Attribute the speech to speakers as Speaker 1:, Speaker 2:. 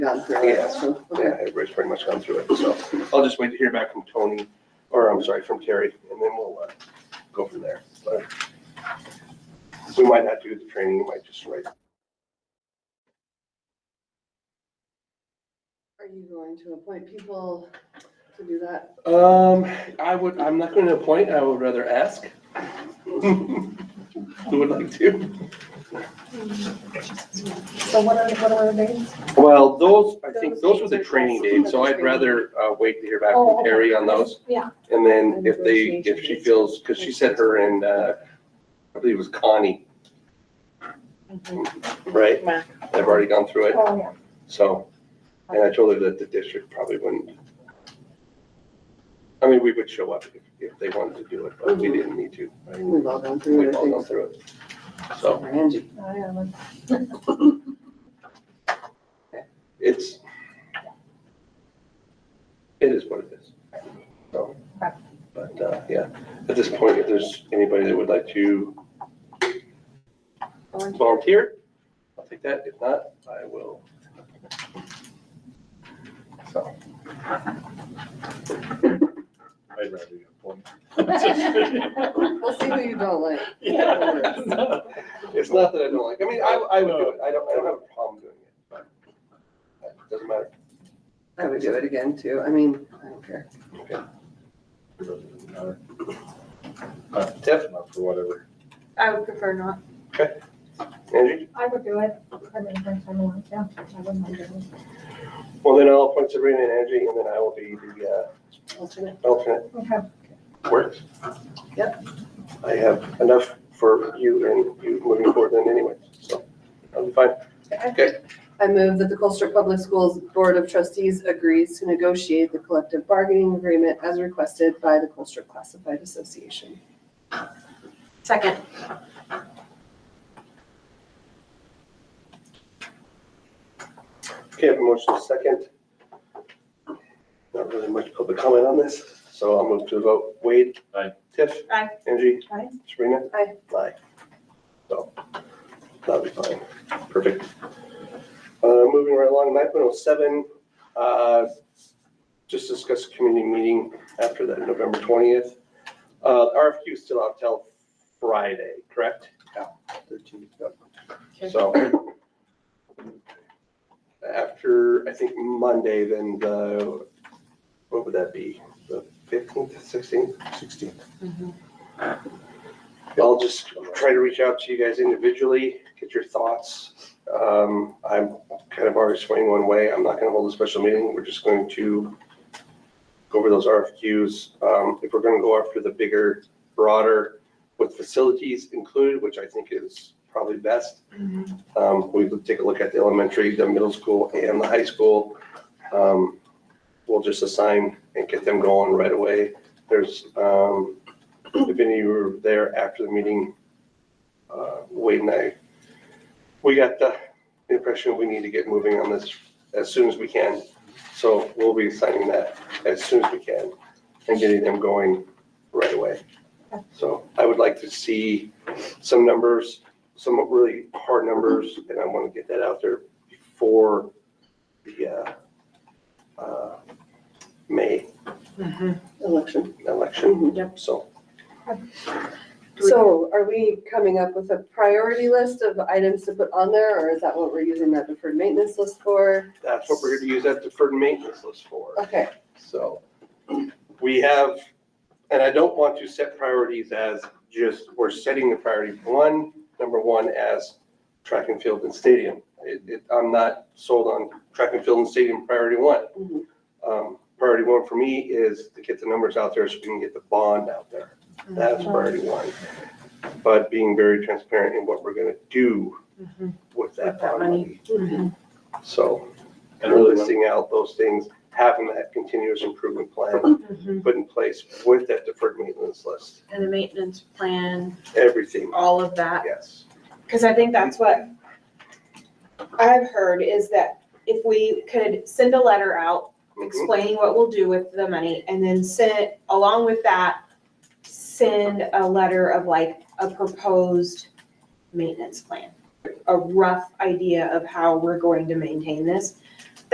Speaker 1: gone through it, so, okay.
Speaker 2: Yeah, everybody's pretty much gone through it, so I'll just wait to hear back from Tony, or I'm sorry, from Terry, and then we'll uh, go from there. But We might not do the training, we might just write.
Speaker 1: Are you going to appoint people to do that?
Speaker 2: Um, I would, I'm not going to appoint, I would rather ask. Who would like to?
Speaker 3: So what are, what are the names?
Speaker 2: Well, those, I think those were the training dates, so I'd rather uh, wait to hear back
Speaker 3: Oh,
Speaker 2: from
Speaker 3: okay.
Speaker 2: Terry on those.
Speaker 3: Yeah,
Speaker 2: And then if they,
Speaker 1: Negotiation
Speaker 2: if she
Speaker 1: dates.
Speaker 2: feels, because she said her and, uh, I believe it was Connie. Right?
Speaker 1: Mac.
Speaker 2: They've already gone through it,
Speaker 3: oh, yeah.
Speaker 2: so, and I told her that the district probably wouldn't. I mean, we would show up if, if they wanted to do it, but we didn't need to. right?
Speaker 1: We've all gone through
Speaker 2: We've
Speaker 1: it, I
Speaker 2: all gone
Speaker 1: think.
Speaker 2: through it. So
Speaker 1: Angie.
Speaker 3: I am.
Speaker 2: it's, it is what it is. So, but, uh, yeah, at this point, if there's anybody that would like to volunteer, I'll take that. If not, I will. So.
Speaker 4: I'd rather you appoint.
Speaker 1: We'll see who you don't like.
Speaker 2: It's not that I don't like, I mean, I, I would do it. I don't, I don't have a problem doing it, but it doesn't matter.
Speaker 1: I would do it again too. I mean, I don't care.
Speaker 2: Tiff,
Speaker 4: Not for whatever.
Speaker 5: I would prefer not.
Speaker 2: Angie?
Speaker 3: I would do it. I mean, if I want, yeah, I wouldn't mind doing
Speaker 2: Well, then I'll appoint Sabrina and Angie, and then I will be the
Speaker 1: Alternate.
Speaker 2: uh, alternate.
Speaker 3: it. Okay.
Speaker 2: Works? I have enough for you and you moving forward then anyway, so I'll be fine.
Speaker 1: I move that the Colchester Public Schools Board of Trustees agrees to negotiate the collective bargaining agreement as requested by the Colchester Classified Association.
Speaker 5: Second.
Speaker 2: Okay, I have a motion second. Not really much public comment on this, so I'll move to a vote. Wade?
Speaker 4: Aye.
Speaker 2: Tiff?
Speaker 5: Aye.
Speaker 2: Angie?
Speaker 5: Aye.
Speaker 2: Sabrina?
Speaker 1: Aye.
Speaker 2: Aye. So, that'll be fine. Perfect. Uh, moving right along, nine point oh seven, uh, just discuss community meeting after that, November twentieth. Uh, RFQ is still out till Friday, correct? Yeah. Thirteen,
Speaker 1: Okay.
Speaker 2: So, after, I think, Monday, then the, what would that be? The fifteenth, sixteenth? Sixteenth. I'll just try to reach out to you guys individually, get your thoughts. Um, I'm kind of already swaying one way. I'm not gonna hold a special meeting. We're just going to go over those RFQs. Um, if we're gonna go after the bigger, broader, with facilities included, which I think is probably best, um, we would take a look at the elementary, the middle school and the high school. Um, we'll just assign and get them going right away. There's, um, if any of you were there after the meeting, uh, Wade and I, we got the impression we need to get moving on this as soon as we can. So we'll be assigning that as soon as we can and getting them going right away. So I would like to see some numbers some really hard numbers, and I want to get that out there before the uh, uh, May
Speaker 5: Mm-hmm.
Speaker 1: Election.
Speaker 2: election. So,
Speaker 1: So are we coming up with a priority list of items to put on there, or is that what we're using that deferred maintenance list for?
Speaker 2: that's what we're going to use that deferred maintenance list for.
Speaker 1: Okay,
Speaker 2: So we have, and I don't want to set priorities as just, we're setting the priority one, number one, as track and field and stadium. It, it, I'm not sold on track and field and stadium priority one.
Speaker 1: Mhm.
Speaker 2: Um, priority one for me is to get the numbers out there so we can get the bond out there. That's priority one. But being very transparent in what we're gonna do Mm-hmm. with that bond money. Mm-hmm. So and really listing out those things, having that continuous improvement plan put in place with that deferred maintenance list,
Speaker 5: And the maintenance plan,
Speaker 2: everything,
Speaker 5: all of that,
Speaker 2: yes.
Speaker 5: because I think that's what I've heard is that if we could send a letter out
Speaker 2: Mhm.
Speaker 5: explaining what we'll do with the money and then send, along with that, send a letter of like a proposed maintenance plan. A rough idea of how we're going to maintain this